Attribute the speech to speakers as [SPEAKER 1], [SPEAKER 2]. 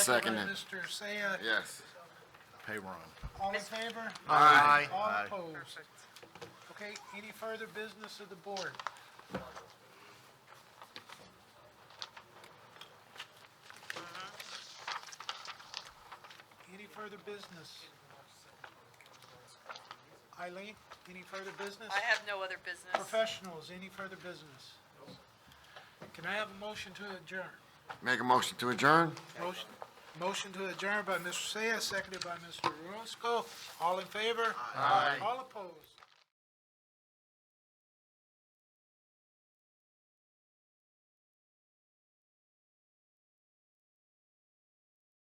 [SPEAKER 1] Second.
[SPEAKER 2] By Mr. Seiya.
[SPEAKER 1] Yes.
[SPEAKER 3] Pay run.
[SPEAKER 2] All in favor?
[SPEAKER 3] Aye.
[SPEAKER 2] All
[SPEAKER 3] Aye.
[SPEAKER 2] opposed? Okay, any further business of the board? Any further business? Eileen, any further business?
[SPEAKER 4] I have no other business.
[SPEAKER 2] Professionals, any further business? Can I have a motion to adjourn?
[SPEAKER 1] Make a motion to adjourn?
[SPEAKER 2] Motion, motion to adjourn by Mr. Seiya, seconded by Mr. Roscoe. All in favor? Aye. All opposed?